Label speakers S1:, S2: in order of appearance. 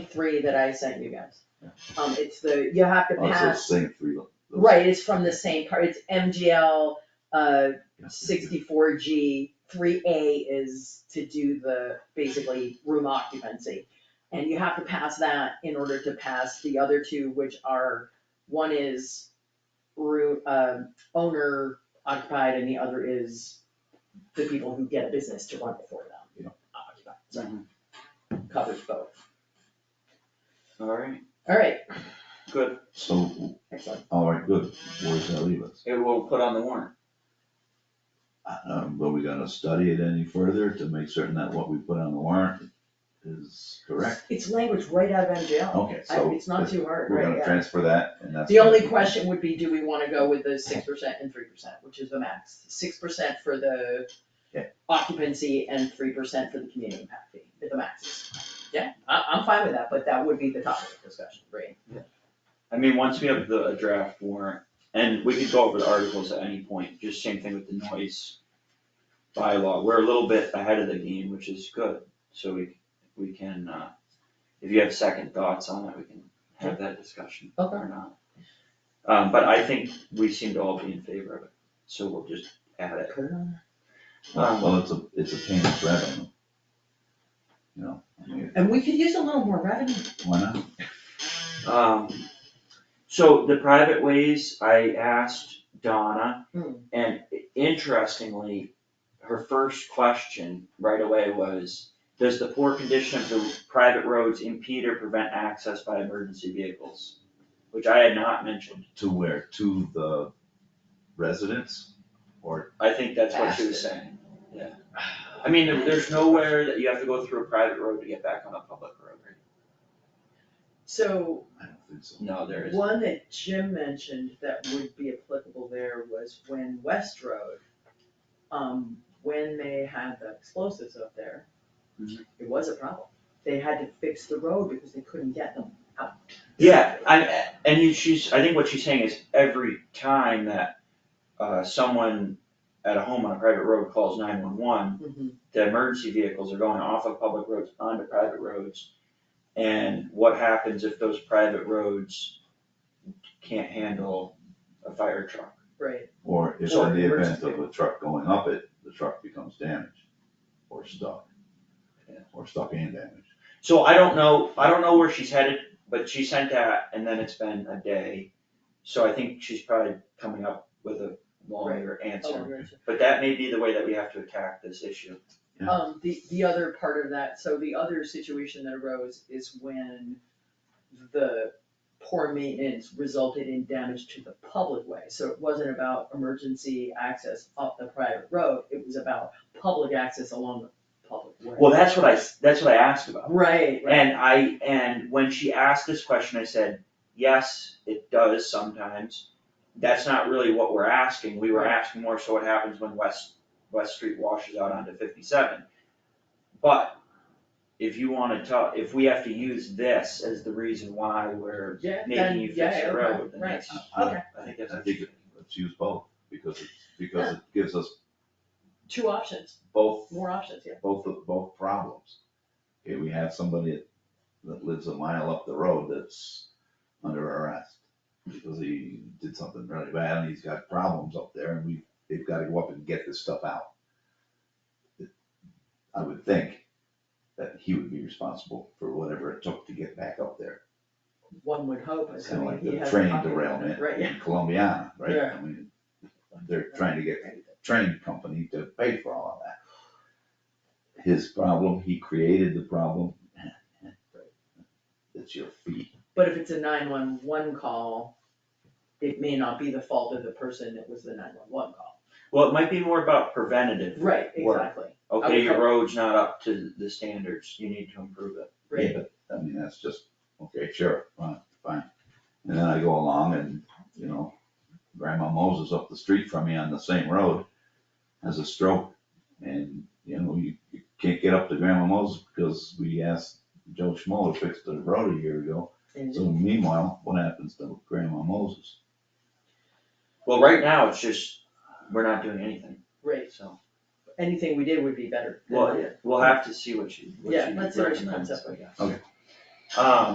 S1: three that I sent you guys. Um, it's the, you have to
S2: Oh, it's
S1: pass,
S2: those same three. lo- those-
S1: right, it's from the same part, it's MGL, uh,
S2: yeah.
S1: sixty-four G, three A is to do the, basically, room occupancy. And you have to pass that in order to pass the other two, which are, one is room, um, owner occupied, and the other is the people who get a business to run it for them.
S2: Yeah. Mm-hmm.
S1: Occupied, so, covers both.
S3: Alright,
S1: All right,
S3: good,
S2: So,
S1: excellent.
S2: all right, good, where does that leave us?
S3: it will put on the warrant.
S2: Um, but we gonna study it any further to make certain that what we put on the warrant is correct?
S1: It's language right out of MGL.
S2: Okay,
S1: I-
S2: so uh,
S1: It's not too hard,
S2: we're
S1: right,
S2: gonna
S1: yeah.
S2: transfer that and that's.
S1: The only question would be, do we wanna go with the six percent and three percent, which is the max? Six percent for the
S2: Yeah.
S1: occupancy and three percent for the community impact fee, at the max. Yeah, I, I'm fine with that, but that would be the topic of discussion, right?
S3: I mean, once we have the a draft warrant, and we could go over the articles at any point, just same thing with the noise bylaw, we're a little bit ahead of the game, which is good, so we, we can, uh, if you have second thoughts on it, we can have that discussion
S1: Okay.
S3: or not. Um, but I think we seem to all be in favor of it, so we'll just add it.
S2: Well, well, it's a, it's a painless revenue. You know, I mean,
S1: And we could use a little more revenue.
S2: why not?
S3: Um, so the private ways, I asked Donna,
S1: Hmm.
S3: and interestingly, her first question right away was, does the poor condition of the private roads impede or prevent access by emergency vehicles? Which I had not mentioned,
S2: To where, to the residents or?
S3: I think that's what she was saying, yeah. I mean, there- there's nowhere that you have to go through a private road to get back on a public road, right?
S1: So
S2: I don't think so.
S3: No, there isn't.
S1: one that Jim mentioned that would be applicable there was when West Road, um, when they had the explosives up there,
S3: Mhm.
S1: it was a problem. They had to fix the road because they couldn't get them out.
S3: Yeah, I, and you- she's, I think what she's saying is every time that, uh, someone at a home on a private road calls nine one one,
S1: Mhm.
S3: the emergency vehicles are going off of public roads onto private roads. And what happens if those private roads can't handle a fire truck?
S1: Right,
S2: Or if
S3: Or
S2: in the event
S3: emergency.
S2: of a truck going up it, the truck becomes damaged or stuck.
S3: Yeah.
S2: Or stuck and damaged.
S3: So I don't know, I don't know where she's headed, but she sent that and then it's been a day. So I think she's probably coming up with a longer answer.
S1: oh, right.
S3: But that may be the way that we have to attack this issue.
S2: Yeah.
S1: Um, the, the other part of that, so the other situation that arose is when the poor maintenance resulted in damage to the public way. So it wasn't about emergency access up the private road, it was about public access along the public way.
S3: Well, that's what I, s- that's what I asked about.
S1: Right, right.
S3: And I, and when she asked this question, I said, yes, it does sometimes. That's not really what we're asking. We were
S1: Right.
S3: asking more so what happens when West, West Street washes out onto fifty-seven. But if you wanna tell, if we have to use this as the reason why we're
S1: Yeah, then,
S3: making you
S1: yeah,
S3: fix
S1: okay,
S3: the road, then
S1: right,
S3: that's,
S2: I-
S1: okay,
S3: I think that's.
S2: I think let's use both because it's, because it gives us
S1: two options,
S2: both,
S1: more options, yeah.
S2: both, of both problems. Okay, we have somebody that lives a mile up the road that's under arrest because he did something really bad and he's got problems up there and we, they've gotta go up and get this stuff out. I would think that he would be responsible for whatever it took to get back up there.
S1: One would hope,
S2: It's
S1: I
S2: kinda
S1: mean,
S2: like
S1: he
S2: the
S1: has.
S2: train
S1: copy of it,
S2: derailment
S1: Right, yeah.
S2: in Columbiana, right?
S1: Yeah.
S2: I mean, they're trying to get a train company to pay for all of that. His problem, he created the problem. uh, It's your feet.
S1: But if it's a nine-one-one call, it may not be the fault of the person that was the nine-one-one call.
S3: Well, it might be more about preventative.
S1: Right,
S3: Work.
S1: exactly,
S3: Okay, your
S1: Okay.
S3: road's not up to the standards. You need to improve it.
S1: right.
S2: Yeah, but, I mean, that's just, okay, sure, fine, fine. And then I go along and, you know, Grandma Moses up the street from me on the same road has a stroke. And, you know, you you can't get up to Grandma Moses because we asked Joe Schmo to fix the road a year ago.
S1: And-
S2: So meanwhile, what happens to Grandma Moses?
S3: Well, right now, it's just, we're not doing anything,
S1: Right,
S3: so.
S1: anything we did would be better. than
S3: Well,
S1: that.
S3: yeah, we'll have to see what she, what she
S1: Yeah, let's see what she
S3: recommends,
S1: comes up
S3: I
S1: with.
S3: guess.
S2: Okay.
S3: Um,